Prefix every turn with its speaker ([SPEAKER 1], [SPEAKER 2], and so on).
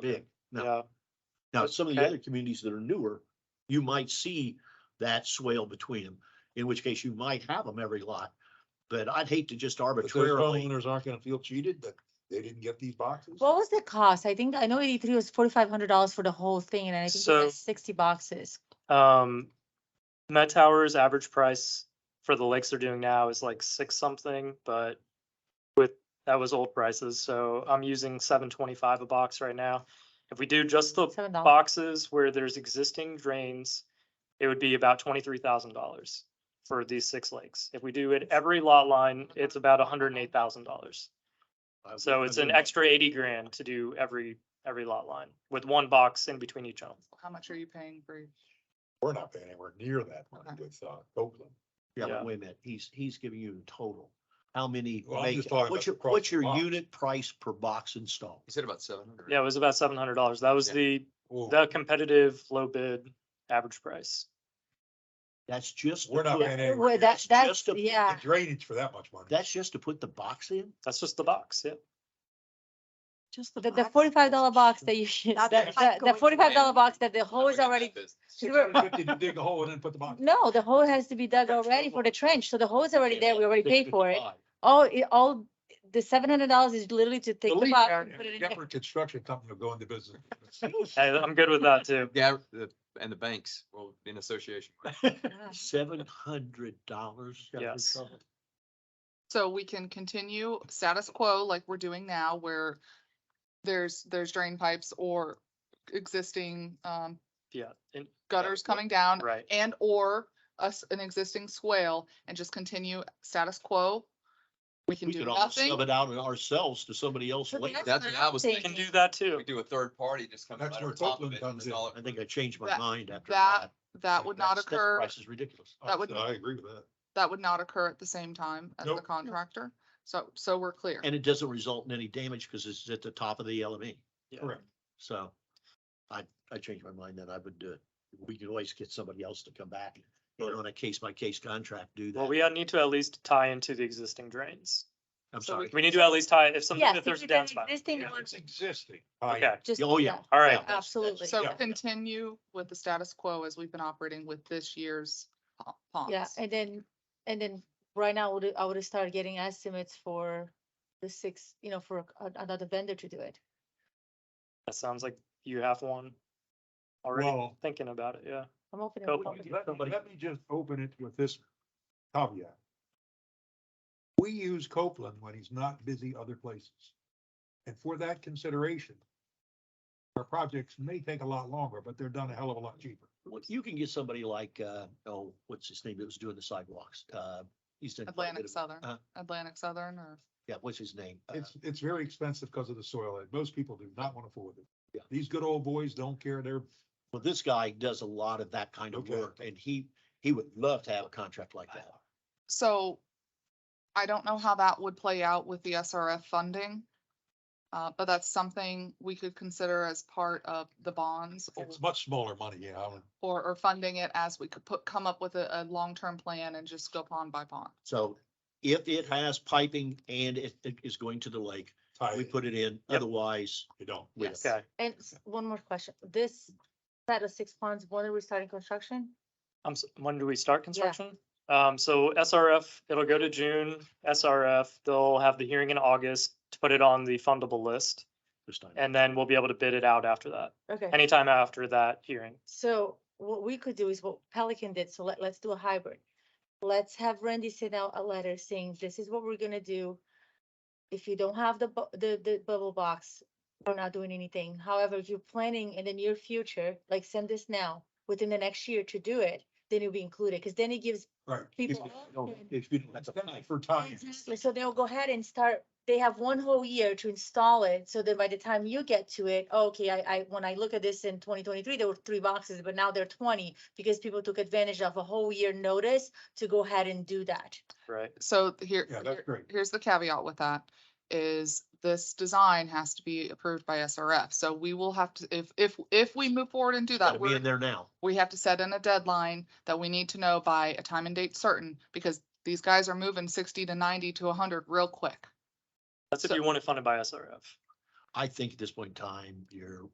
[SPEAKER 1] big. No.
[SPEAKER 2] Yeah,
[SPEAKER 1] Now, some of the
[SPEAKER 2] Okay.
[SPEAKER 1] other communities that are newer, you might see that swale between them, in which case you might have them every lot. But I'd hate to just
[SPEAKER 3] But those
[SPEAKER 1] arbitrarily,
[SPEAKER 3] homeowners aren't gonna feel cheated that they didn't get these boxes?
[SPEAKER 4] What was the cost? I think, I know eighty-three was forty-five hundred dollars for the whole thing, and I think it
[SPEAKER 2] So-
[SPEAKER 4] was sixty boxes.
[SPEAKER 2] um, Met Towers average price for the lakes they're doing now is like six something, but with, that was old prices, so I'm using seven twenty-five a box right now. If we do just the
[SPEAKER 4] Seven dollars.
[SPEAKER 2] boxes where there's existing drains, it would be about twenty-three thousand dollars for these six lakes. If we do it every lot line, it's about hundred and eight thousand dollars. So it's an extra eighty grand to do every, every lot line with one box in between each home.
[SPEAKER 5] How much are you paying for? your-
[SPEAKER 3] We're not paying anywhere near that
[SPEAKER 4] Uh-huh.
[SPEAKER 3] money
[SPEAKER 5] Okay.
[SPEAKER 3] with, uh, Oakland.
[SPEAKER 1] Yeah,
[SPEAKER 2] yeah.
[SPEAKER 1] but wait a minute, he's, he's giving you in total. How many?
[SPEAKER 3] Well, I'm
[SPEAKER 1] make
[SPEAKER 3] just
[SPEAKER 1] it?
[SPEAKER 3] talking about
[SPEAKER 1] What's your,
[SPEAKER 3] across
[SPEAKER 1] what's
[SPEAKER 3] the
[SPEAKER 1] your
[SPEAKER 3] box.
[SPEAKER 1] unit price per box installed?
[SPEAKER 6] You said about seven hundred.
[SPEAKER 2] Yeah, it was about seven hundred dollars. That was
[SPEAKER 6] Yeah.
[SPEAKER 2] the,
[SPEAKER 3] Ooh,
[SPEAKER 2] the competitive low bid average price.
[SPEAKER 1] That's just. to
[SPEAKER 3] We're not
[SPEAKER 1] put-
[SPEAKER 3] paying
[SPEAKER 4] Well,
[SPEAKER 3] anywhere. near
[SPEAKER 4] that,
[SPEAKER 1] It's
[SPEAKER 4] that's,
[SPEAKER 1] just a-
[SPEAKER 3] The
[SPEAKER 4] yeah,
[SPEAKER 3] drainage for that much money.
[SPEAKER 1] That's just to put the box in?
[SPEAKER 2] That's just the box, yeah.
[SPEAKER 5] Just
[SPEAKER 4] the, the forty-five dollar box that you,
[SPEAKER 5] That's
[SPEAKER 4] the,
[SPEAKER 5] like
[SPEAKER 4] the- the
[SPEAKER 5] going-
[SPEAKER 4] forty-five dollar box that the hole is already,
[SPEAKER 3] Six hundred and fifty to dig a hole and then put the box.
[SPEAKER 4] no, the hole has to be dug already for the trench, so the hole is already there, we already paid for it. All, it, all, the seven hundred dollars is literally to take the
[SPEAKER 3] lead
[SPEAKER 4] box and put it in there.
[SPEAKER 3] Shepherd Construction Company will go into business. Oh,
[SPEAKER 2] Hey, I'm good with that too.
[SPEAKER 6] Yeah, the- and the banks, well, in association.
[SPEAKER 1] Seven hundred dollars?
[SPEAKER 2] Yes.
[SPEAKER 5] So we can continue status quo like we're doing now where there's, there's drain pipes or existing, um,
[SPEAKER 2] Yeah, and,
[SPEAKER 5] gutters coming down
[SPEAKER 2] right.
[SPEAKER 5] and or us, an existing swale and just continue status quo. We can
[SPEAKER 1] We
[SPEAKER 5] do
[SPEAKER 1] could almost
[SPEAKER 5] nothing.
[SPEAKER 1] sub it out ourselves to somebody else
[SPEAKER 4] So
[SPEAKER 1] later.
[SPEAKER 4] that's
[SPEAKER 6] That's what I
[SPEAKER 4] I'm
[SPEAKER 6] was
[SPEAKER 2] We
[SPEAKER 6] thinking.
[SPEAKER 2] can
[SPEAKER 4] thinking.
[SPEAKER 2] do that too.
[SPEAKER 6] We do a third party, just come
[SPEAKER 3] That's
[SPEAKER 6] right
[SPEAKER 3] where
[SPEAKER 6] over top of
[SPEAKER 3] Oakland
[SPEAKER 6] it. and
[SPEAKER 3] comes
[SPEAKER 6] it's all-
[SPEAKER 1] I think I changed my
[SPEAKER 5] That-
[SPEAKER 1] mind after
[SPEAKER 5] that-
[SPEAKER 1] that.
[SPEAKER 5] That would not
[SPEAKER 1] That's- that
[SPEAKER 5] occur,
[SPEAKER 1] Price is ridiculous.
[SPEAKER 5] That would-
[SPEAKER 3] I agree with that.
[SPEAKER 5] that would not occur at the same time as the
[SPEAKER 3] Nope.
[SPEAKER 5] contractor. So, so we're clear.
[SPEAKER 1] And it doesn't result in any damage because it's at the top of the LME.
[SPEAKER 2] Yeah.
[SPEAKER 3] Correct.
[SPEAKER 1] So I, I changed my mind then. I would do it. We could always get somebody else to come back and on a case by case contract, do
[SPEAKER 2] Well,
[SPEAKER 1] that.
[SPEAKER 2] we need to at least tie into the existing drains.
[SPEAKER 1] I'm
[SPEAKER 5] so we
[SPEAKER 1] sorry.
[SPEAKER 2] We need to at least tie, if something,
[SPEAKER 4] Yes,
[SPEAKER 2] if
[SPEAKER 4] if
[SPEAKER 2] there's a
[SPEAKER 4] you did
[SPEAKER 2] downspout.
[SPEAKER 4] Existing
[SPEAKER 3] Oh, Yeah,
[SPEAKER 4] one,
[SPEAKER 3] It's existing.
[SPEAKER 2] Okay,
[SPEAKER 4] just.
[SPEAKER 1] Oh, yeah.
[SPEAKER 2] all right.
[SPEAKER 1] Yeah.
[SPEAKER 4] Absolutely.
[SPEAKER 5] So
[SPEAKER 3] Yeah.
[SPEAKER 5] continue with the status quo as we've been operating with this year's po-
[SPEAKER 4] Yeah,
[SPEAKER 5] ponds.
[SPEAKER 4] and then, and then right now, I would, I would start getting estimates for the six, you know, for a- another vendor to do it.
[SPEAKER 2] That sounds like you have one already
[SPEAKER 3] Well,
[SPEAKER 2] thinking about it, yeah.
[SPEAKER 4] I'm opening.
[SPEAKER 2] Go.
[SPEAKER 4] up.
[SPEAKER 3] let me- let me just open it with this caveat. We use Copeland when he's not busy other places. And for that consideration, our projects may take a lot longer, but they're done a hell of a lot cheaper.
[SPEAKER 1] Well, You can get somebody like, uh, oh, what's his name that was doing the sidewalks? Uh, he's done. quite a bit
[SPEAKER 5] Atlantic
[SPEAKER 1] of-
[SPEAKER 5] Southern,
[SPEAKER 1] uh,
[SPEAKER 5] Atlantic Southern or
[SPEAKER 1] Yeah, what's his name? Uh,
[SPEAKER 3] It's, it's very expensive because of the soil, and most people do not want to afford it.
[SPEAKER 1] Yeah.
[SPEAKER 3] These good old boys don't care, they're,
[SPEAKER 1] Well, this guy does a lot of that kind of
[SPEAKER 3] Okay.
[SPEAKER 1] work and he, he would love to have a contract like that.
[SPEAKER 5] So I don't know how that would play out with the SRF funding. Uh, but that's something we could consider as part of the bonds or,
[SPEAKER 3] it's much smaller money, yeah. I would-
[SPEAKER 5] or, or funding it as we could put, come up with a, a long-term plan and just go pond by pond.
[SPEAKER 1] So if it has piping and it it is going to the lake,
[SPEAKER 3] tie
[SPEAKER 1] we
[SPEAKER 3] it,
[SPEAKER 1] put it in,
[SPEAKER 2] Yep.
[SPEAKER 1] otherwise.
[SPEAKER 3] You don't.
[SPEAKER 1] we
[SPEAKER 5] Yes.
[SPEAKER 1] don't.
[SPEAKER 2] Okay,
[SPEAKER 4] And s- one more question, this set of six ponds, when are we starting construction?
[SPEAKER 2] I'm, s- when do we start construction? Um, so SRF, it'll go to June, SRF, they'll have the hearing in August to put it on the fundable list.
[SPEAKER 1] This time.
[SPEAKER 2] And then we'll be able to bid it out after that,
[SPEAKER 4] Okay,
[SPEAKER 2] anytime after that hearing.
[SPEAKER 4] so what we could do is what Pelican did, so let, let's do a hybrid. Let's have Randy send out a letter saying, this is what we're gonna do. If you don't have the, bu- the, the bubble box, we're not doing anything. However, if you're planning in the near future, like send this now, within the next year to do it, then it'll be included, because then it gives
[SPEAKER 3] Right.
[SPEAKER 4] people. option.
[SPEAKER 1] If you don't have
[SPEAKER 3] That's
[SPEAKER 1] the
[SPEAKER 3] definitely
[SPEAKER 1] pipe,
[SPEAKER 3] For time.
[SPEAKER 4] Exactly, so they'll go ahead and start, they have one whole year to install it, so that by the time you get to it, "Oh, okay, I, I, when I look at this in twenty twenty-three, there were three boxes, but now they're twenty, because people took advantage of a whole year notice to go ahead and do that.
[SPEAKER 2] Right.
[SPEAKER 5] So here,
[SPEAKER 3] Yeah, that's
[SPEAKER 5] here-
[SPEAKER 3] great.
[SPEAKER 5] here's the caveat with that, is this design has to be approved by SRF. So we will have to, if, if, if we move forward and do
[SPEAKER 1] gotta
[SPEAKER 5] that,
[SPEAKER 1] be
[SPEAKER 5] we're,
[SPEAKER 1] in there now.
[SPEAKER 5] we have to set in a deadline that we need to know by a time and date certain, because these guys are moving sixty to ninety to hundred real quick.
[SPEAKER 2] That's if
[SPEAKER 5] So-
[SPEAKER 2] you want it funded by SRF.
[SPEAKER 1] I think at this point in time, you're